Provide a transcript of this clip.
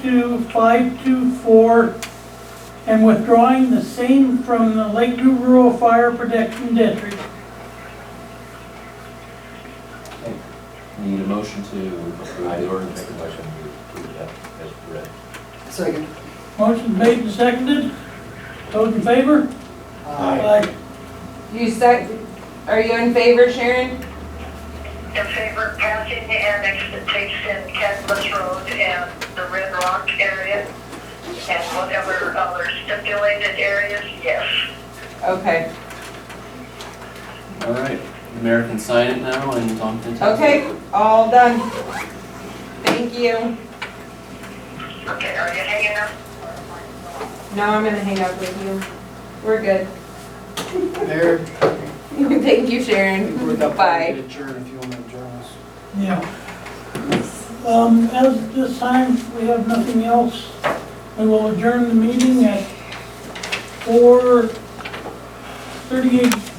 to 524 and withdrawing the same from the Lakeview Rural Fire Protection District. Need a motion to approve I the would make ordinance. a motion to approve that as read. Second. Motion made and seconded. Those in favor? Aye. You sec, are you in favor, Sharon? in favor of passing the annex that takes in Cadmus Road and the Red Rock area and whatever other stipulated areas, yes. Okay, All right, the mayor can sign it now and Tom can take it. okay, all done. Thank you. Okay, are you hanging up? No, I'm gonna hang up with you. We're good. Mayor. Thank you, Sharon. we're about Bye. to Adjourn if you want to adjourn us. Yeah. Um, as this time, we have nothing else. We will adjourn the meeting at four thirty-eight